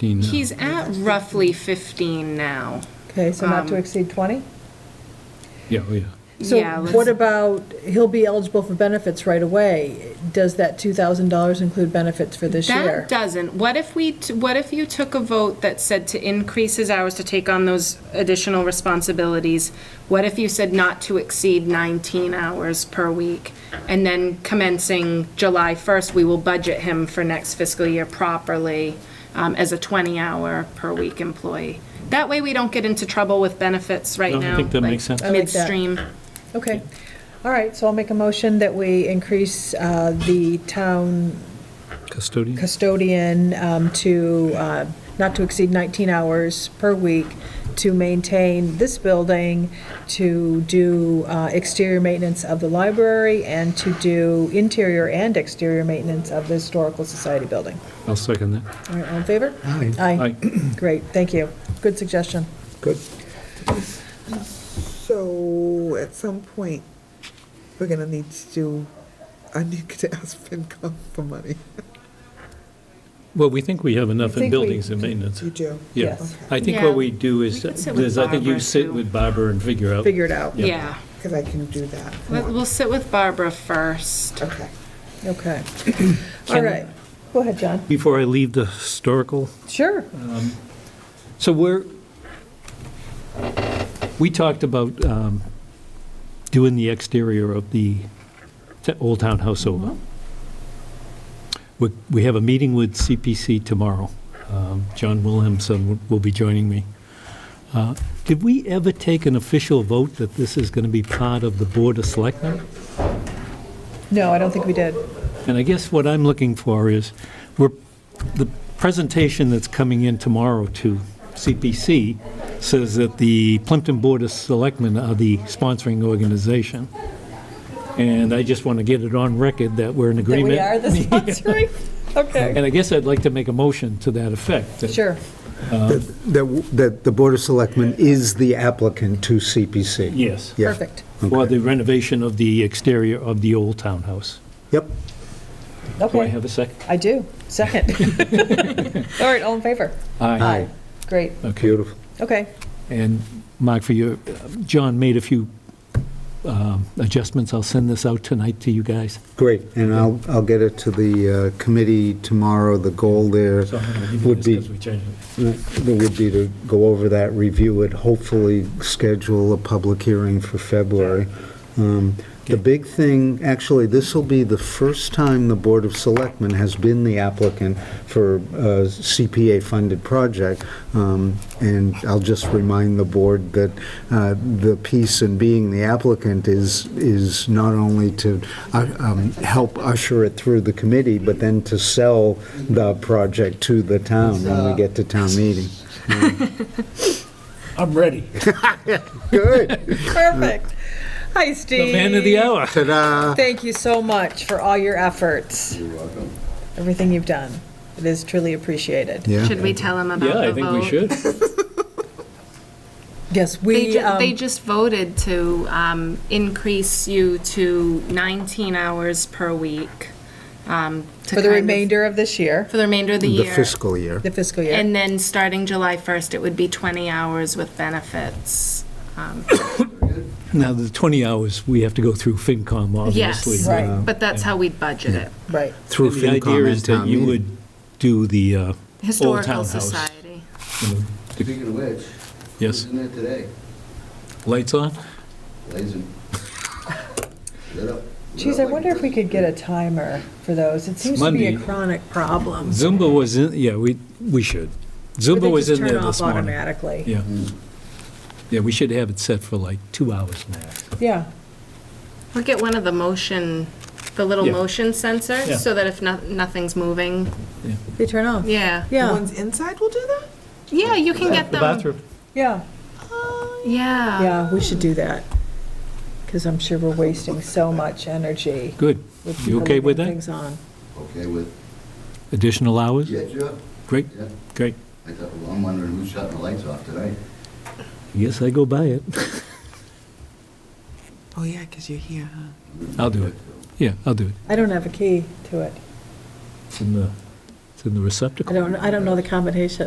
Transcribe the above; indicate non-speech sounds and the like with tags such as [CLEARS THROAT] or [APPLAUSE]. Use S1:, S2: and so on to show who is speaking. S1: 15 now.
S2: He's at roughly 15 now.
S3: Okay, so not to
S2: Um,
S3: exceed 20?
S1: Yeah, oh, yeah.
S2: Yeah,
S3: So
S2: let's-
S3: what about, he'll be eligible for benefits right away. Does that $2,000 include benefits for this year?
S2: That doesn't. What if we, t- what if you took a vote that said to increase his hours to take on those additional responsibilities? What if you said not to exceed 19 hours per week? And then commencing July 1st, we will budget him for next fiscal year properly um, as a 20-hour per week employee. That way, we don't get into trouble with benefits right
S1: No, I
S2: now.
S1: think that
S2: like
S1: makes sense. I
S3: like that.
S2: Midstream.
S3: Okay, all right, so I'll make a motion that we increase uh, the town
S1: Custodian?
S3: custodian um, to, uh, not to exceed 19 hours per week to maintain this building, to do uh, exterior maintenance of the library, and to do interior and exterior maintenance of the Historical Society building.
S1: I'll second that.
S3: All right, all in favor?
S4: Aye.
S3: Aye.
S1: Aye.
S3: Great, thank you. Good suggestion.
S4: Good. So at some point, we're gonna need to do, I need to ask FinCom for money.
S1: Well, we think we have enough
S3: I think we-
S1: in buildings and maintenance.
S4: You do?
S1: Yeah.
S3: Yes.
S1: I think
S2: Yeah.
S1: what we do
S2: We
S1: is,
S2: could sit with
S1: is I think you
S2: Barbara,
S1: sit
S2: too.
S1: with Barbara and figure out.
S3: Figure it out.
S1: Yeah.
S2: Yeah.
S4: Because I can do that.
S2: We'll we'll sit with Barbara first.
S4: Okay.
S3: Okay.
S1: [CLEARS THROAT]
S3: All right. Go ahead, John.
S1: Before I leave the historical,
S3: Sure.
S1: so we're, we talked about um, doing the exterior of the t- Old Town House over. We- We have a meeting with CPC tomorrow. Um, John Williamson will be joining me. Uh, Did we ever take an official vote that this is going to be part of the Board of Selectmen?
S3: No, I don't think we did.
S1: And I guess what I'm looking for is, we're, the presentation that's coming in tomorrow to CPC says that the Plimpton Board of Selectmen are the sponsoring organization. And I just want to get it on record that we're in
S3: That
S1: agreement.
S3: we
S1: [LAUGHS]
S3: are the sponsoring? Okay.
S1: And I guess I'd like to make a motion to that effect. that-
S3: Sure.
S5: That, that the Board of Selectmen is the applicant to CPC?
S1: Yes.
S5: Yeah.
S3: Perfect.
S1: For the renovation of the exterior of the old townhouse.
S5: Yep.
S1: Do I
S3: Okay.
S1: have a second?
S3: I do.
S1: [LAUGHS]
S3: Second. All right, all in favor?
S1: Aye.
S3: Great.
S1: Okay.
S5: Beautiful.
S3: Okay.
S1: And Mark, for you, John made a few um, adjustments. I'll send this out tonight to you guys.
S5: Great. And I'll, I'll get it to the uh, committee tomorrow. The goal there would be, uh, would be to go over that, review it, hopefully schedule a public hearing for February. Um, The
S1: Okay.
S5: big thing, actually, this will be the first time the Board of Selectmen has been the applicant for uh, a CPA-funded project. Um, And I'll just remind the board that uh, the piece in being the applicant is, is not only to uh, um, help usher it through the committee, but then to sell the project to the town when we get to town meeting.
S1: I'm ready.
S3: Perfect. Hi, Steve.
S1: The man of the hour.
S5: Ta-da!
S3: Thank you so much for all your efforts. You're welcome. Everything you've done. It is truly appreciated.
S5: Yeah.
S2: Should we tell him about the
S1: Yeah,
S2: vote?
S1: I think we should.
S3: Yes,
S2: They,
S3: we,
S2: ju- they
S3: um,
S2: just voted to um, increase you to 19 hours per week. um, to
S3: for
S2: kind
S3: the
S2: of-
S3: remainder of this year,
S2: For the remainder of the
S5: The
S2: year.
S5: fiscal year.
S3: the fiscal year.
S2: And then starting July 1st, it would be 20 hours with benefits.
S1: Now, the 20 hours, we have to go through FinCom, obviously.
S2: Yes,
S3: Right.
S2: but that's how we'd budget it.
S3: Right.
S5: Through
S1: The idea
S5: FinCom
S1: is
S5: and
S1: that
S5: town
S1: you
S5: meeting.
S1: would do the uh, Old
S2: Historical
S1: Town House.
S2: Society.
S1: you know,
S6: Speaking of which.
S1: Yes.
S6: who's in there today?
S1: Lights on?
S6: Blazing. Lit up- lit
S3: Geez,
S6: up
S3: I
S6: like
S3: wonder if we
S6: Christmas
S3: could get a timer for those. It seems to be a
S1: Monday.
S3: chronic problem.
S1: Zumba was in, yeah, we, we should. Zumba was in there this
S3: They
S1: morning.
S3: just turn off automatically.
S1: Yeah. Yeah, we should have it set for like two hours max.
S3: Yeah,
S2: Or get one of the motion, the little
S1: Yeah.
S2: motion
S1: Yeah.
S2: sensors, so that if no- nothing's moving,
S3: they turn off.
S2: yeah.
S4: The
S3: Yeah,
S4: ones inside will do that?
S2: Yeah, you can get
S1: The
S2: them.
S1: bathroom.
S3: yeah,
S2: Yeah.
S3: yeah, we should do that. Because I'm sure we're wasting so much energy
S1: Good.
S3: with
S1: You
S3: people
S1: okay with
S3: leaving
S1: that?
S3: things on.
S6: Okay with,
S1: Additional hours?
S6: yeah, sure,
S1: Great,
S6: yeah.
S1: great.
S6: I thought, well, I'm wondering who's shutting the lights off tonight.
S1: Yes, I go by it.
S4: Oh, yeah, because you're here, huh?
S1: I'll do it. Yeah, I'll do it.
S3: I don't have a key to it.
S1: It's in the, it's in the
S3: I
S1: receptacle.
S3: don't, I don't know the combination.